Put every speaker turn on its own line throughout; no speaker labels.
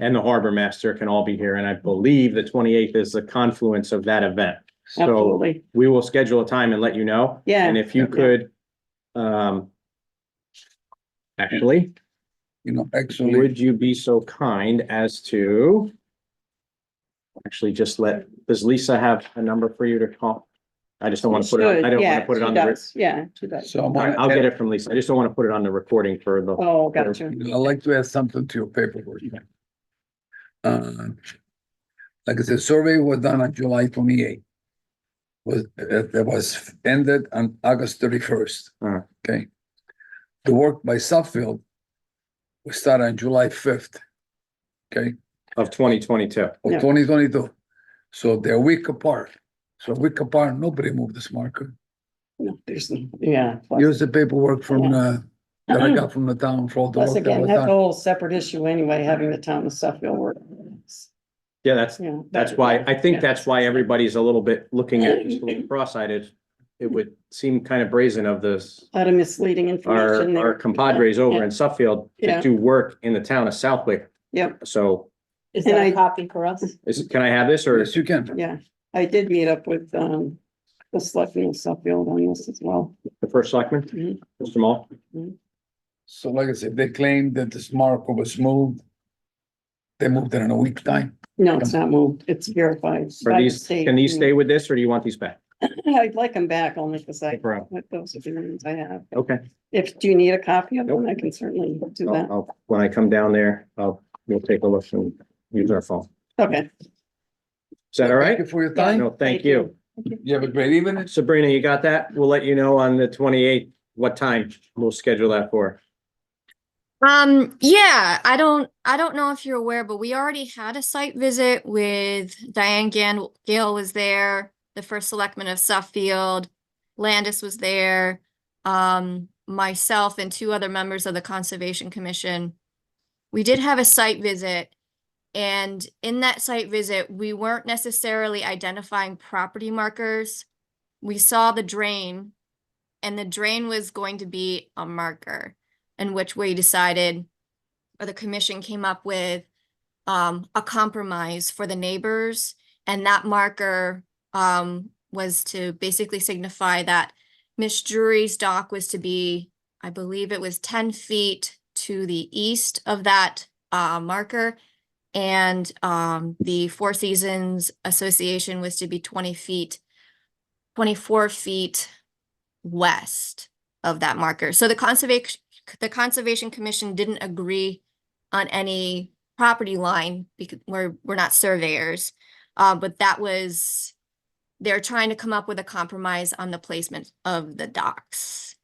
and the harbor master can all be here, and I believe the twenty-eighth is the confluence of that event. So
Absolutely.
we will schedule a time and let you know.
Yeah.
And if you could, um, actually,
You know, actually,
would you be so kind as to actually just let, does Lisa have a number for you to call? I just don't want to put it,
Should,
I don't want
yeah,
to put it
she
on the, re-
does. Yeah, she does.
All right, I'll get
someone,
it from Lisa. I just don't want to put it on the recording for the,
Oh, gotcha.
I'd like to add something to your paperwork. Uh, Like I said, survey was done on July twenty-eighth. Was, it it was ended on August thirty-first.
Uh-huh.
Uh.
Okay. The work by Southfield we started on July fifth. Okay,
of twenty twenty-two.
of
Yeah.
twenty twenty-two. So they're a week apart. So a week apart, nobody moved this marker.
No, There's, no- yeah. plus-
Here's the paperwork from, uh, that I got from the town for all the
Plus
work that
again,
was
that's a
done.
whole separate issue anyway, having the town of Suffield work.
Yeah, that's,
Yeah.
that's why, I think that's why everybody's a little bit looking at this a little cross-eyed. It- It would seem kind of brazen of this,
Lot of misleading information
our, our
there.
compadres over in Suffield to
Yeah.
do work in the town of Southwick.
Yep.
So
Is
And
that
I-
a copy for us?
is, can I have this or?
Yes, you can.
Yeah, I did meet up with, um, the selectmen of Suffield on this as well.
The first selectman?
Mhm.
Mr. Mall?
So like I said, they claimed that this marker was moved. They moved it in a week time.
No, it's not moved. It's verified.
Are
by the
these,
state.
can these stay with this or do you want these back?
I'd like them back only because I,
Bro,
what those agreements I have.
Okay,
If, do you need a copy of them? I can certainly do
I'll,
that.
I'll, when I come down there, I'll, we'll take a look and use our phone.
Okay.
Is that all right?
Thank you for your time.
No, thank you.
You have a great evening.
Sabrina, you got that? We'll let you know on the twenty-eighth, what time we'll schedule that for.
Um, yeah, I don't, I don't know if you're aware, but we already had a site visit with Diane Gan- Gale was there, the first selectman of Suffield, Landis was there, um, myself and two other members of the Conservation Commission. We did have a site visit, and in that site visit, we weren't necessarily identifying property markers. We saw the drain, and the drain was going to be a marker and which we decided, or the commission came up with, um, a compromise for the neighbors. And that marker, um, was to basically signify that Miss Drury's dock was to be, I believe it was ten feet to the east of that, uh, marker. And, um, the Four Seasons Association was to be twenty feet, twenty-four feet west of that marker. So the conservation, the Conservation Commission didn't agree on any property line because we're, we're not surveyors. Uh, but that was, they're trying to come up with a compromise on the placement of the docks.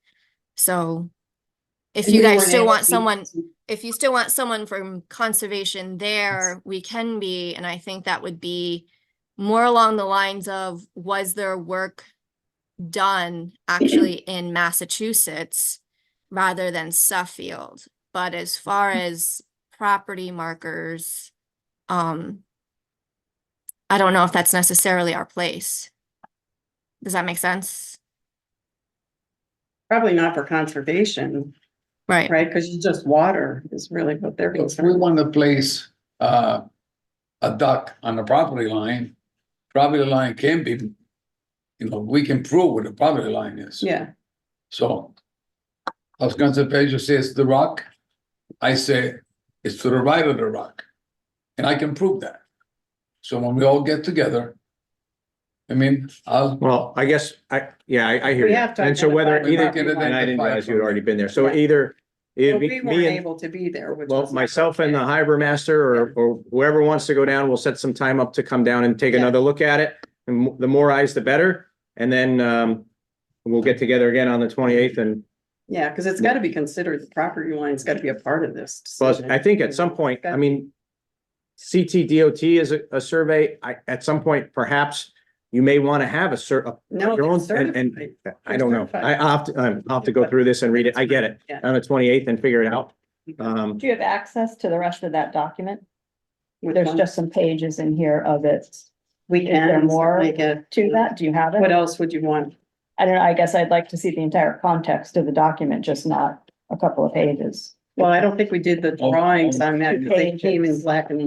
So if you guys still want someone, if you still want someone from conservation there, we can be, and I think that would be more along the lines of, was there work done actually in Massachusetts rather than Suffield? But as far as property markers, um, I don't know if that's necessarily our place. Does that make sense?
Probably not for conservation,
Right.
right? Because it's just water is really what they're
If we
concerned.
want to place, uh, a duck on the property line, property line can be, you know, we can prove what the property line is.
Yeah,
So. I was gonna say, Pedro says the rock. I say it's to the right of the rock. And I can prove that. So when we all get together. I mean, I'll,
Well, I guess, I, yeah, I, I hear
We
you.
have to
And so whether
identify-
either,
We have to
and I didn't
identify
realize you had
something.
already been there. So
Yeah.
either
But
it'd be
we weren't
me and,
able to be there, which
well,
was.
myself and uh, the harbor master or, or whoever wants to go down, we'll set some time up to come down and take
Yeah.
another look at it. And m- the more eyes, the better. And then, um, we'll get together again on the twenty-eighth and
Yeah, because it's got to be considered, the property line's got to be a part of this.
Well,
decision.
I think at some point, I mean, CTDOT is a, a survey. I, at some point, perhaps you may want to have a cer, a-
No,
your own-
it's
and- and-
certified.
I don't know. I, I'll have to, um, I'll have to go through this and read it. I get it. Uh,
Yeah.
On the twenty-eighth and figure it out. Um,
Do you have access to the rest of that document?
With
There's
one-
just some pages in here of it.
We
is there
can
more
make it
To that, do you have
What
it?
else would you want?
I don't know, I guess I'd like to see the entire context of the document, just not a couple of pages.
Well, I don't think we did the
Oh,
drawings on that.
Two
because They came in
pages.
black and